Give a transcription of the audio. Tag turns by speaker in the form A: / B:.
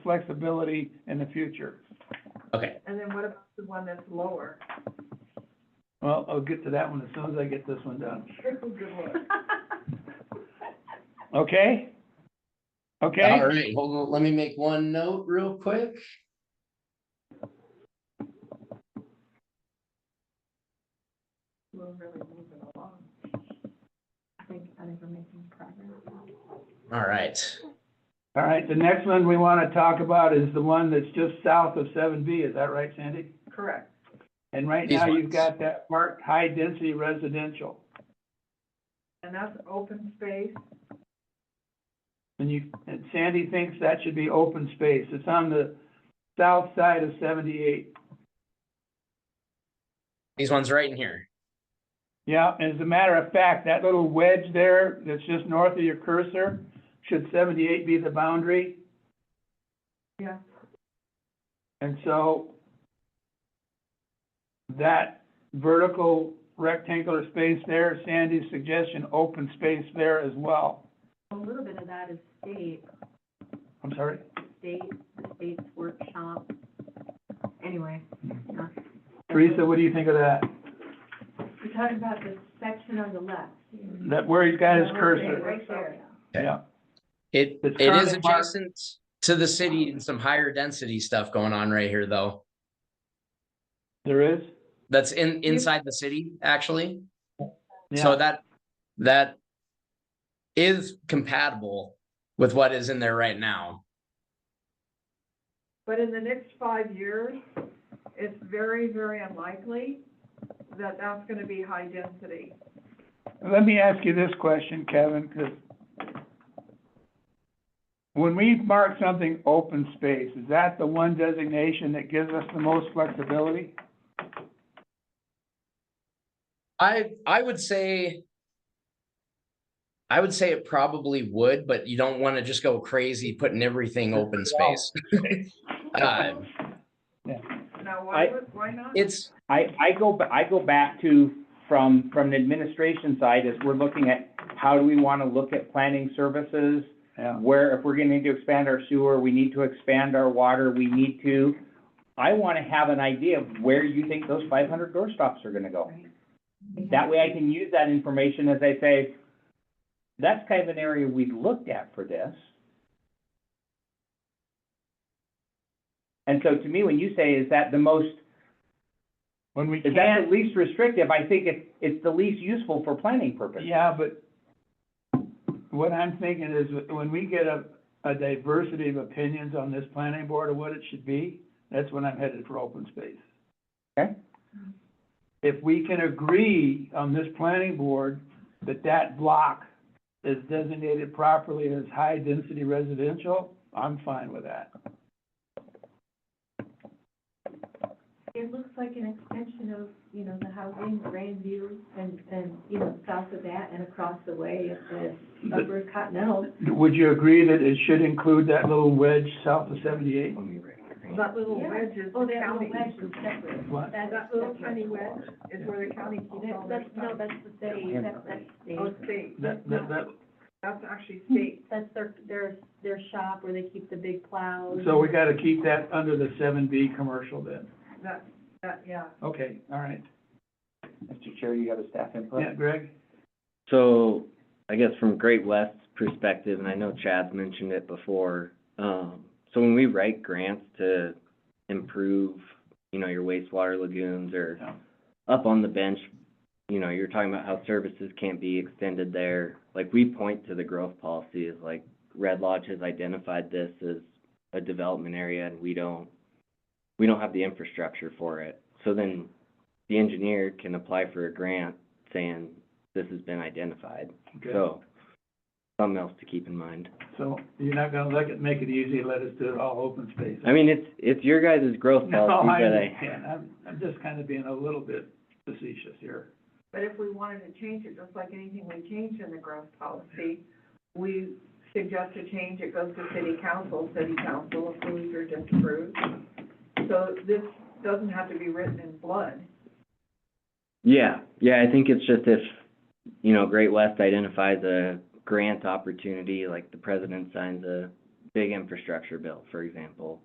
A: flexibility in the future.
B: Okay,
C: And then what about the one that's lower?
A: Well, I'll get to that one as soon as I get this one done. Okay? Okay?
B: all right, hold on, let me make one note real quick.
C: We're really moving along. I think, I think we're making progress.
B: All right,
A: All right, the next one we want to talk about is the one that's just south of seven B, is that right, Sandy?
C: Correct.
A: And right
B: These
A: now, you've
B: ones.
A: got that marked high-density residential.
C: And that's open space,
A: And you, and Sandy thinks that should be open space. It's on the south side of seventy-eight.
B: these ones right in here.
A: Yeah, as a matter of fact, that little wedge there that's just north of your cursor, should seventy-eight be the boundary?
C: yeah.
A: And so that vertical rectangular space there, Sandy's suggestion, open space there as well.
D: A little bit of that is state,
A: I'm sorry?
D: state, the state's workshop. Anyway, yeah.
A: Teresa, what do you think of that?
D: We're talking about the section on the left.
A: That where he's got his
C: Yeah,
A: cursor?
C: Right there.
A: Yeah,
B: It,
A: It's
B: it is
A: currently marked-
B: adjacent to the city and some higher density stuff going on right here, though.
A: there is?
B: That's in, inside the city, actually. So
A: Yeah,
B: that, that is compatible with what is in there right now.
C: But in the next five years, it's very, very unlikely that that's gonna be high density.
A: let me ask you this question, Kevin, 'cause when we mark something open space, is that the one designation that gives us the most flexibility?
B: I, I would say. I would say it probably would, but you don't want to just go crazy putting everything open space. Uh,
C: Now, why
E: I-
C: would, why not?
B: It's,
E: I, I go, ba- I go back to, from, from the administration side, is we're looking at, how do we wanna look at planning services?
A: Yeah,
E: Where, if we're gonna need to expand our sewer, we need to expand our water, we need to, I wanna have an idea of where you think those five hundred door stops are gonna go. That way I can use that information as I say, that's kind of an area we've looked at for this. And so to me, when you say, is that the most
A: when we
E: is that
A: can't,
E: the least restrictive? I think it's, it's the least useful for planning purposes.
A: yeah, but what I'm thinking is, when we get a, a diversity of opinions on this planning board of what it should be, that's when I'm headed for open space.
E: Okay.
A: If we can agree on this planning board that that block is designated properly as high-density residential, I'm fine with that.
D: It looks like an extension of, you know, the housing, Grandview, and, and, you know, south of that and across the way at the upper Cottonelle.
A: Would you agree that it should include that little wedge south of seventy-eight?
C: That little
D: Yeah.
C: wedge is
D: Oh,
C: the
D: that little
C: county.
D: wedge is separate.
A: What?
D: That's
C: That little
D: separate.
C: tiny wedge is where the county keeps all
D: That-
C: their
D: That's,
C: stuff.
D: no, that's the city, that's, that's state.
C: Oh, state,
A: That, that, that,
C: that's actually state.
D: That's their, their, their shop where they keep the big plows.
A: so we gotta keep that under the seven B commercial then.
C: That, that, yeah.
A: Okay, all right.
E: Mr. Chair, you have a staff input?
A: Yeah, Greg?
F: So, I guess from Great West's perspective, and I know Chad's mentioned it before, um, so when we write grants to improve, you know, your wastewater lagoons or
A: Yeah.
F: up on the bench, you know, you're talking about how services can't be extended there. Like, we point to the growth policy as like, Red Lodge has identified this as a development area and we don't, we don't have the infrastructure for it. So then the engineer can apply for a grant saying, this has been identified.
A: Okay.
F: So, something else to keep in mind.
A: So you're not gonna let it, make it easy, let us do it all open space?
F: I mean, it's, it's your guys' growth
A: No,
F: policy,
A: I
F: but I,
A: understand. I'm, I'm just kind of being a little bit facetious here.
C: But if we wanted to change it, just like anything we change in the growth policy, we suggest a change, it goes to city council, city council approves or disapproves. So this doesn't have to be written in blood.
F: yeah, yeah, I think it's just if, you know, Great West identifies a grant opportunity, like the president signs a big infrastructure bill, for example.